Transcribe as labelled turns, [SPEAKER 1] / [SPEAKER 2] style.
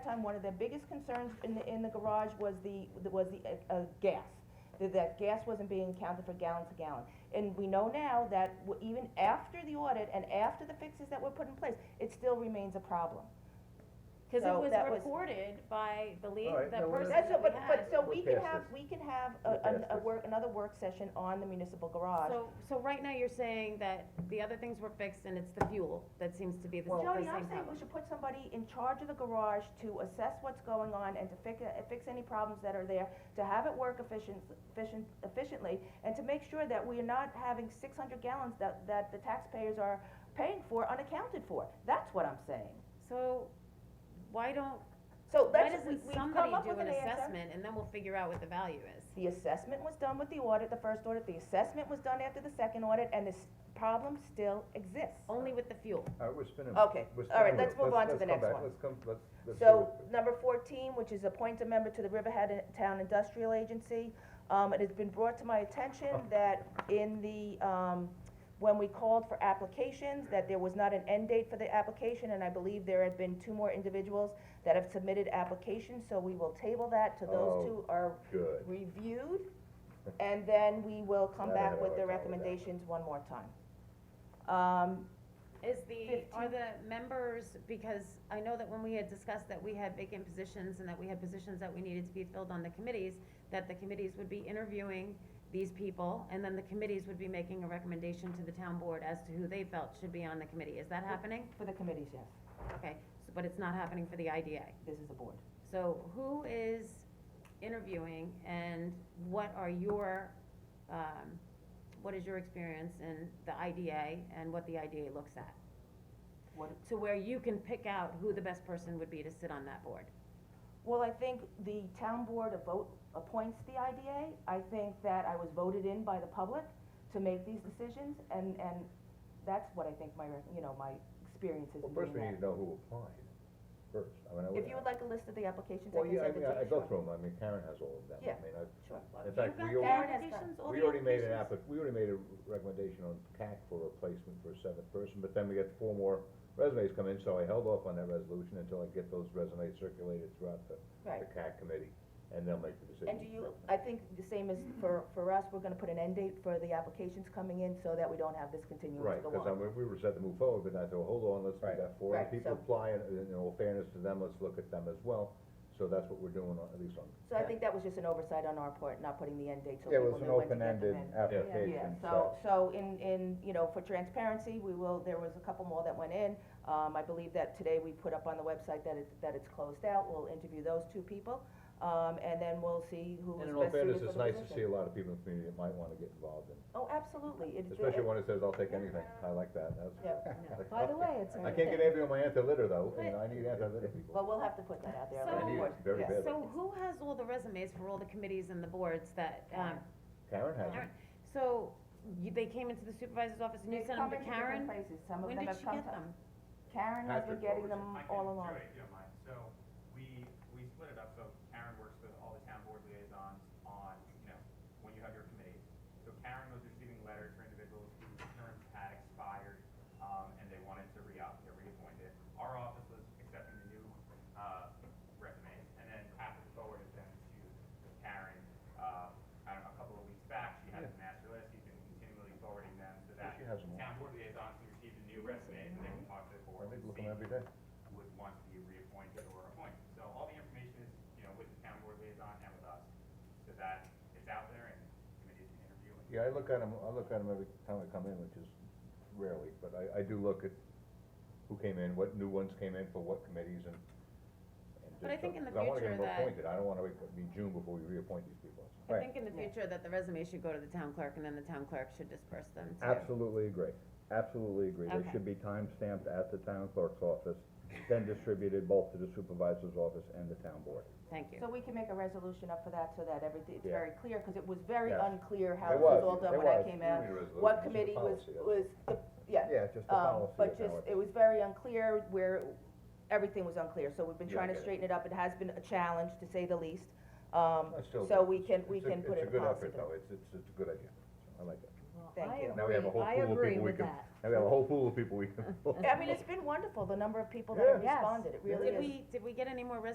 [SPEAKER 1] time, one of their biggest concerns in the, in the garage was the, was the, uh, uh, gas. That, that gas wasn't being counted for gallon to gallon. And we know now that w- even after the audit and after the fixes that were put in place, it still remains a problem.
[SPEAKER 2] Cause it
[SPEAKER 1] So
[SPEAKER 2] was
[SPEAKER 1] that was-
[SPEAKER 2] reported by the lead,
[SPEAKER 3] All right,
[SPEAKER 2] the
[SPEAKER 3] now we're
[SPEAKER 2] person
[SPEAKER 1] That's,
[SPEAKER 2] that
[SPEAKER 1] so-
[SPEAKER 2] we
[SPEAKER 1] but, but,
[SPEAKER 2] had.
[SPEAKER 1] so
[SPEAKER 3] We're
[SPEAKER 1] we can
[SPEAKER 3] past
[SPEAKER 1] have,
[SPEAKER 3] this.
[SPEAKER 1] we can have
[SPEAKER 3] We're
[SPEAKER 1] a, an-
[SPEAKER 3] past
[SPEAKER 1] a
[SPEAKER 3] this.
[SPEAKER 1] work, another work session on the municipal garage.
[SPEAKER 2] So, so right now you're saying that the other things were fixed and it's the fuel that seems to be the, the same
[SPEAKER 1] Jody, I'm saying we
[SPEAKER 2] problem.
[SPEAKER 1] should put somebody in charge of the garage to assess what's going on and to fix, fix any problems that are there, to have it work efficient, efficient, efficiently, and to make sure that we are not having six hundred gallons that, that the taxpayers are paying for unaccounted for. That's what I'm saying.
[SPEAKER 2] So, why don't,
[SPEAKER 1] So
[SPEAKER 2] why
[SPEAKER 1] let's, we,
[SPEAKER 2] doesn't
[SPEAKER 1] we've
[SPEAKER 2] somebody
[SPEAKER 1] come up
[SPEAKER 2] do
[SPEAKER 1] with an
[SPEAKER 2] an
[SPEAKER 1] answer.
[SPEAKER 2] assessment and then we'll figure out what the value is?
[SPEAKER 1] The assessment was done with the audit, the first audit, the assessment was done after the second audit, and this problem still exists.
[SPEAKER 2] Only with the fuel.
[SPEAKER 3] All right, we're spinning.
[SPEAKER 1] Okay,
[SPEAKER 3] We're
[SPEAKER 1] all right,
[SPEAKER 3] spinning.
[SPEAKER 1] let's move on to
[SPEAKER 3] let's
[SPEAKER 1] the
[SPEAKER 3] come
[SPEAKER 1] next
[SPEAKER 3] back.
[SPEAKER 1] one.
[SPEAKER 3] Let's come, let's, let's. do
[SPEAKER 1] So,
[SPEAKER 3] it.
[SPEAKER 1] number fourteen, which is appoint a member to the Riverhead in- Town Industrial Agency, um, it has been brought to my attention
[SPEAKER 3] Oh.
[SPEAKER 1] that in the, um, when we called for applications, that there was not an end date for the application, and I believe there had been two more individuals that have submitted applications, so we will table that till
[SPEAKER 3] Oh,
[SPEAKER 1] those two are
[SPEAKER 3] Good.
[SPEAKER 1] reviewed, and then we will come
[SPEAKER 3] That I
[SPEAKER 1] back
[SPEAKER 3] had
[SPEAKER 1] with the
[SPEAKER 3] a problem with that.
[SPEAKER 1] recommendations one more time. Um,
[SPEAKER 2] Is the, are
[SPEAKER 1] Fifteen.
[SPEAKER 2] the members, because I know that when we had discussed that we had vacant positions and that we had positions that we needed to be filled on the committees, that the committees would be interviewing these people, and then the committees would be making a recommendation to the town board as to who they felt should be on the committee. Is that happening?
[SPEAKER 1] for the committees, yes,
[SPEAKER 2] Okay, so- but it's not happening for the IDA.
[SPEAKER 1] this is the board.
[SPEAKER 2] So who is interviewing and what are your, um, what is your experience in the IDA and what the IDA looks at?
[SPEAKER 1] What,
[SPEAKER 2] to where you can pick out who the best person would be to sit on that board.
[SPEAKER 1] Well, I think the town board a vote appoints the IDA. I think that I was voted in by the public to make these decisions, and, and that's what I think my, rec- you know, my experience is in
[SPEAKER 3] Well, first we
[SPEAKER 1] doing
[SPEAKER 3] need to
[SPEAKER 1] that.
[SPEAKER 3] know who applied first. I mean, I would.
[SPEAKER 1] If you would like a list of the applications, I
[SPEAKER 3] Well,
[SPEAKER 1] can
[SPEAKER 3] yeah, I
[SPEAKER 1] send it to
[SPEAKER 3] mean,
[SPEAKER 1] you.
[SPEAKER 3] I I go
[SPEAKER 1] Sure.
[SPEAKER 3] through them. I mean, Karen has all of them.
[SPEAKER 1] Yeah.
[SPEAKER 3] I mean, I,
[SPEAKER 1] Sure.
[SPEAKER 3] in fact, we
[SPEAKER 1] got
[SPEAKER 3] already,
[SPEAKER 1] that?
[SPEAKER 3] we already made an app, we already made a recommendation on CAC for replacement for a seventh person, but then we got four more resumes come in, so I held off on that resolution until I get those resumes circulated throughout the,
[SPEAKER 1] Right.
[SPEAKER 3] the CAC committee, and they'll make the decision.
[SPEAKER 1] And do you, I think the same as for, for us, we're gonna put an end date for the applications coming in so that we don't have this continuing to
[SPEAKER 3] Right,
[SPEAKER 1] go
[SPEAKER 3] because I
[SPEAKER 1] on.
[SPEAKER 3] mean, we were set to move forward, but I thought, hold on, let's, we
[SPEAKER 4] Right.
[SPEAKER 3] got four, and
[SPEAKER 1] Right,
[SPEAKER 3] people
[SPEAKER 1] so-
[SPEAKER 3] apply, and and in all fairness to them, let's look at them as well, so that's what we're doing, on- at least on.
[SPEAKER 1] So I think that was just an oversight on our part, not putting the end date so
[SPEAKER 4] Yeah,
[SPEAKER 1] people
[SPEAKER 4] it
[SPEAKER 1] knew
[SPEAKER 4] was an
[SPEAKER 1] when to get them in.
[SPEAKER 4] open-ended
[SPEAKER 1] Yeah,
[SPEAKER 4] application,
[SPEAKER 1] so,
[SPEAKER 4] so.
[SPEAKER 1] so in, in, you know, for transparency, we will, there was a couple more that went in. Um, I believe that today we put up on the website that it, that it's closed out, we'll interview those two people, um, and then we'll see who is
[SPEAKER 3] And in all
[SPEAKER 1] best suited
[SPEAKER 3] fairness,
[SPEAKER 1] for the
[SPEAKER 3] it's nice to see
[SPEAKER 1] position.
[SPEAKER 3] a lot of people in the community that might wanna get involved in,
[SPEAKER 1] Oh, absolutely, it's.
[SPEAKER 3] especially when it says, I'll take anything, I like that,
[SPEAKER 1] Yeah,
[SPEAKER 3] that's.
[SPEAKER 1] by the way, it's.
[SPEAKER 3] I can't get anybody on my anti-litter though, and
[SPEAKER 2] But-
[SPEAKER 3] I need anti-litter people.
[SPEAKER 1] Well, we'll have to put that out there.
[SPEAKER 2] So-
[SPEAKER 1] of
[SPEAKER 3] I need it
[SPEAKER 1] course,
[SPEAKER 3] very
[SPEAKER 1] yes.
[SPEAKER 3] badly.
[SPEAKER 2] So who has all the resumes for all the committees and the boards that, um,
[SPEAKER 3] Karen has it.
[SPEAKER 2] Karen, so you, they came into the supervisor's office and you
[SPEAKER 1] They
[SPEAKER 2] sent them
[SPEAKER 1] come
[SPEAKER 2] to
[SPEAKER 1] in different
[SPEAKER 2] Karen?
[SPEAKER 1] places. Some of
[SPEAKER 2] When
[SPEAKER 1] them have
[SPEAKER 2] did she
[SPEAKER 1] come
[SPEAKER 2] get
[SPEAKER 1] to-
[SPEAKER 2] them?
[SPEAKER 1] Karen has been getting
[SPEAKER 3] Patrick forwards it.
[SPEAKER 1] them
[SPEAKER 5] I can
[SPEAKER 1] all
[SPEAKER 5] do
[SPEAKER 1] along.
[SPEAKER 5] it, if you don't mind. So we, we split it up, so Karen works with all the town board liaisons on, you know, when you have your committees. So Karen was receiving letters for individuals whose terms had expired, um, and they wanted to re-up, get reappointed. Our office was accepting the new, uh, resumes, and then Patrick forwarded them to Karen, uh, I don't know, a couple of weeks back. She has a master list, he's been continually forwarding them, so that
[SPEAKER 3] She has them all.
[SPEAKER 5] town board liaisons who receive the new resumes, and they can talk to the board.
[SPEAKER 3] I
[SPEAKER 5] and
[SPEAKER 3] look at
[SPEAKER 5] see
[SPEAKER 3] them every day.
[SPEAKER 5] would want to be reappointed or appointed. So all the information is, you know, with the town board liaison and with us, so that it's out there and committees can interview and
[SPEAKER 3] Yeah, I look at them, I look at them every time I come in, which is rarely, but I, I do look at who came in, what new ones came in for what committees and. and
[SPEAKER 2] But I
[SPEAKER 3] just,
[SPEAKER 2] think in the
[SPEAKER 3] 'cause I wanna get
[SPEAKER 2] future
[SPEAKER 3] them
[SPEAKER 2] that-
[SPEAKER 3] appointed, I don't wanna wait, I mean, June before we reappoint these people.
[SPEAKER 2] I
[SPEAKER 4] Right.
[SPEAKER 2] think in the
[SPEAKER 1] Yeah.
[SPEAKER 2] future that the resumes should go to the town clerk and then the town clerk should disperse them to.
[SPEAKER 4] Absolutely agree, absolutely agree. They
[SPEAKER 2] Okay.
[SPEAKER 4] should be time stamped at the town clerk's office, then distributed both to the supervisor's office and the town board.
[SPEAKER 2] Thank you.
[SPEAKER 1] So we can make a resolution up for that so that everything, it's
[SPEAKER 4] Yeah.
[SPEAKER 1] very clear, cause it was very
[SPEAKER 4] Yes.
[SPEAKER 1] unclear how
[SPEAKER 4] It
[SPEAKER 1] it was
[SPEAKER 4] was,
[SPEAKER 1] all done
[SPEAKER 4] it
[SPEAKER 1] when I
[SPEAKER 4] was.
[SPEAKER 1] came
[SPEAKER 3] We
[SPEAKER 1] out.
[SPEAKER 3] need a resolution.
[SPEAKER 1] What
[SPEAKER 3] It's a
[SPEAKER 1] committee was,
[SPEAKER 3] policy.
[SPEAKER 1] was, the- yeah.
[SPEAKER 4] Yeah, just the
[SPEAKER 1] Um,
[SPEAKER 4] policy
[SPEAKER 1] but
[SPEAKER 4] is how
[SPEAKER 1] just,
[SPEAKER 4] it's-
[SPEAKER 1] it was very unclear where, everything was unclear, so we've been
[SPEAKER 3] Yeah, I
[SPEAKER 1] trying to
[SPEAKER 3] get it.
[SPEAKER 1] straighten it up, it has been a challenge, to say the least. Um,
[SPEAKER 3] I still
[SPEAKER 1] so
[SPEAKER 3] do.
[SPEAKER 1] we can,
[SPEAKER 3] It's
[SPEAKER 1] we
[SPEAKER 3] a-
[SPEAKER 1] can put it in
[SPEAKER 3] It's a good
[SPEAKER 1] policy.
[SPEAKER 3] effort though, it's, it's, it's a good idea, I like it.
[SPEAKER 1] Thank you.
[SPEAKER 3] Now we have a whole
[SPEAKER 2] I
[SPEAKER 3] pool of
[SPEAKER 2] agree
[SPEAKER 3] people we
[SPEAKER 2] with
[SPEAKER 3] can,
[SPEAKER 2] that.
[SPEAKER 3] now we have a whole pool of people we can.
[SPEAKER 1] I mean, it's been wonderful, the number of people that have
[SPEAKER 3] Yeah.
[SPEAKER 1] responded, it really is.
[SPEAKER 2] Did we, did we get any more resumes